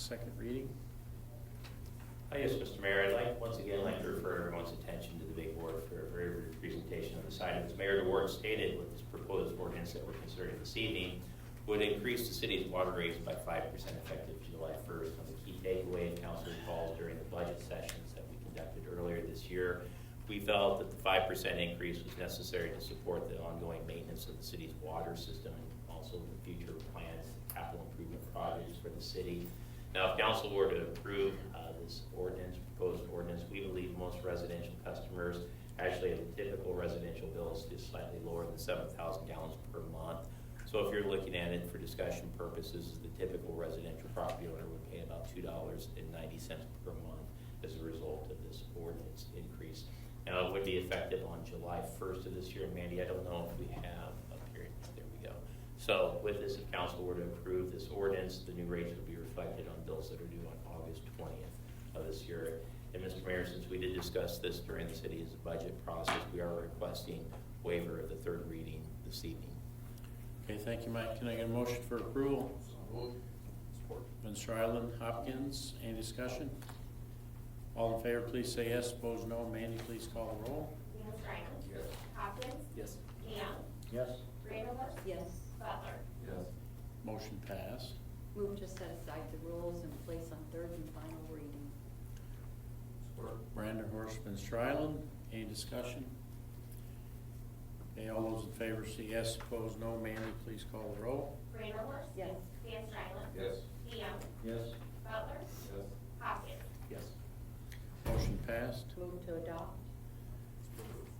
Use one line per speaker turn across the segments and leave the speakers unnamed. second reading.
I guess, Mr. Mayor, I'd like, once again, I'd like to refer everyone's attention to the big board for a very brief presentation on this item. As Mayor DeWart stated, with this proposed ordinance that we're considering this evening, would increase the city's water rates by five percent effective July first. One of the key takeaway council calls during the budget sessions that we conducted earlier this year, we felt that the five percent increase was necessary to support the ongoing maintenance of the city's water system and also the future plans, capital improvement projects for the city. Now, if council were to approve uh, this ordinance, proposed ordinance, we believe most residential customers actually have typical residential bills just slightly lower than seven thousand gallons per month. So if you're looking at it for discussion purposes, the typical residential property owner would pay about two dollars and ninety cents per month as a result of this ordinance increase. Now, it would be effective on July first of this year. Mandy, I don't know if we have a period, there we go. So with this, if council were to approve this ordinance, the new rates would be reflected on bills that are due on August twentieth of this year. And Mr. Mayor, since we did discuss this during the city's budget process, we are requesting waiver of the third reading this evening.
Okay, thank you, Mike. Can I get a motion for approval? Van Strylen, Hopkins, any discussion? All in favor, please say yes. Opposed, no. Mandy, please call the roll.
Dan Stryland. Hopkins.
Yes.
DeYoung.
Yes.
Randall.
Yes.
Butler.
Yes.
Motion passed.
Move to set aside the rules and place on third and final reading.
Brander Horst, Van Strylen, any discussion? Okay, all those in favor say yes. Opposed, no. Mandy, please call the roll.
Randall.
Yes.
Dan Stryland.
Yes.
DeYoung.
Yes.
Butler.
Yes.
Hopkins.
Yes. Motion passed.
Move to adopt?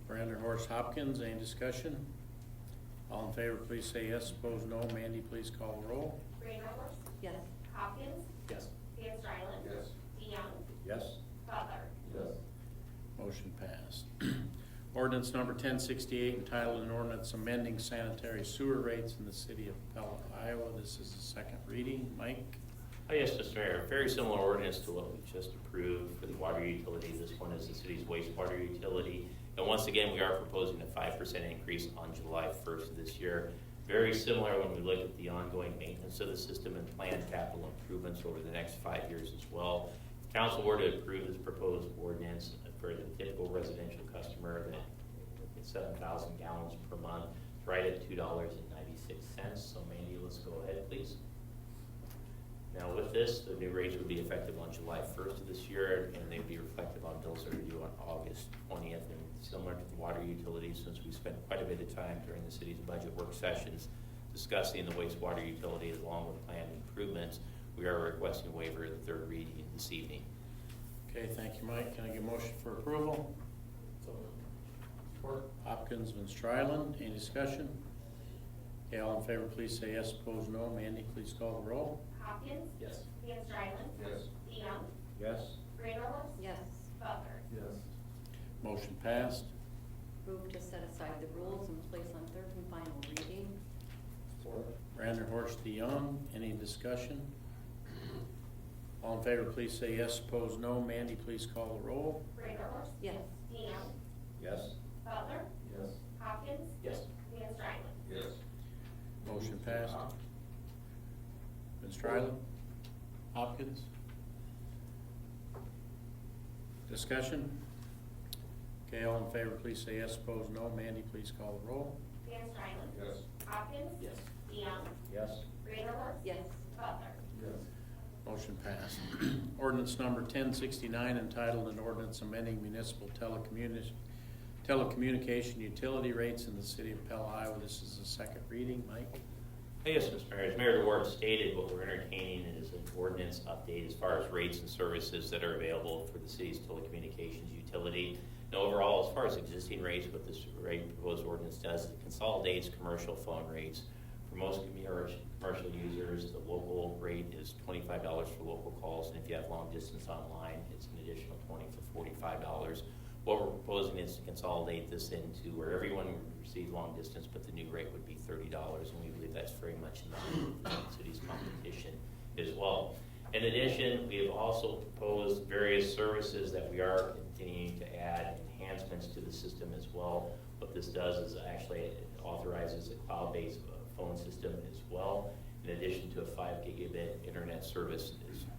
Brander Horst, Hopkins, any discussion? All in favor, please say yes. Opposed, no. Mandy, please call the roll.
Randall.
Yes.
Hopkins.
Yes.
Dan Stryland.
Yes.
DeYoung.
Yes.
Butler.
Yes.
Motion passed. Ordinance number ten sixty-eight entitled an ordinance amending sanitary sewer rates in the city of Pella, Iowa. This is the second reading. Mike?
Oh, yes, Mr. Mayor, very similar ordinance to what we just approved for the water utility. This one is the city's wastewater utility. And once again, we are proposing a five percent increase on July first of this year. Very similar when we look at the ongoing maintenance of the system and planned capital improvements over the next five years as well. If Council were to approve this proposed ordinance for the typical residential customer that seven thousand gallons per month, it's right at two dollars and ninety-six cents. So Mandy, let's go ahead, please. Now with this, the new rates would be effective on July first of this year, and they'd be reflective on bills that are due on August twentieth. And similar to the water utilities, since we spent quite a bit of time during the city's budget work sessions discussing the wastewater utility along with planned improvements, we are requesting a waiver of the third reading this evening.
Okay, thank you, Mike. Can I get a motion for approval? Hopkins, Van Strylen, any discussion? Okay, all in favor, please say yes. Opposed, no. Mandy, please call the roll.
Hopkins.
Yes.
Dan Stryland.
Yes.
DeYoung.
Yes.
Randall.
Yes.
Butler.
Yes.
Motion passed.
Move to set aside the rules and place on third and final reading.
Support.
Brander Horst DeYoung, any discussion? All in favor, please say yes. Opposed, no. Mandy, please call the roll.
Randall.
Yes.
DeYoung.
Yes.
Butler.
Yes.
Hopkins.
Yes.
Dan Stryland.
Yes.
Motion passed. Van Strylen? Hopkins? Discussion? Okay, all in favor, please say yes. Opposed, no. Mandy, please call the roll.
Dan Stryland.
Yes.
Hopkins.
Yes.
DeYoung.
Yes.
Randall.
Yes.
Butler.
Yes.
Motion passed. Ordinance number ten sixty-nine entitled an ordinance amending municipal telecommunication, telecommunication utility rates in the city of Pella, Iowa. This is the second reading. Mike?
Hey, Yes, Mr. Mayor, as Mayor DeWart stated, what we're entertaining is an ordinance update as far as rates and services that are available for the city's telecommunications utility. And overall, as far as existing rates, what this rate proposed ordinance does is it consolidates commercial phone rates. For most commer- commercial users, the local rate is twenty-five dollars for local calls, and if you have long distance online, it's an additional twenty for forty-five dollars. What we're proposing is to consolidate this into where everyone would receive long distance, but the new rate would be thirty dollars, and we believe that's very much in line with the city's competition as well. In addition, we have also proposed various services that we are continuing to add enhancements to the system as well. What this does is actually it authorizes a cloud-based uh, phone system as well, in addition to a five gigabit internet service as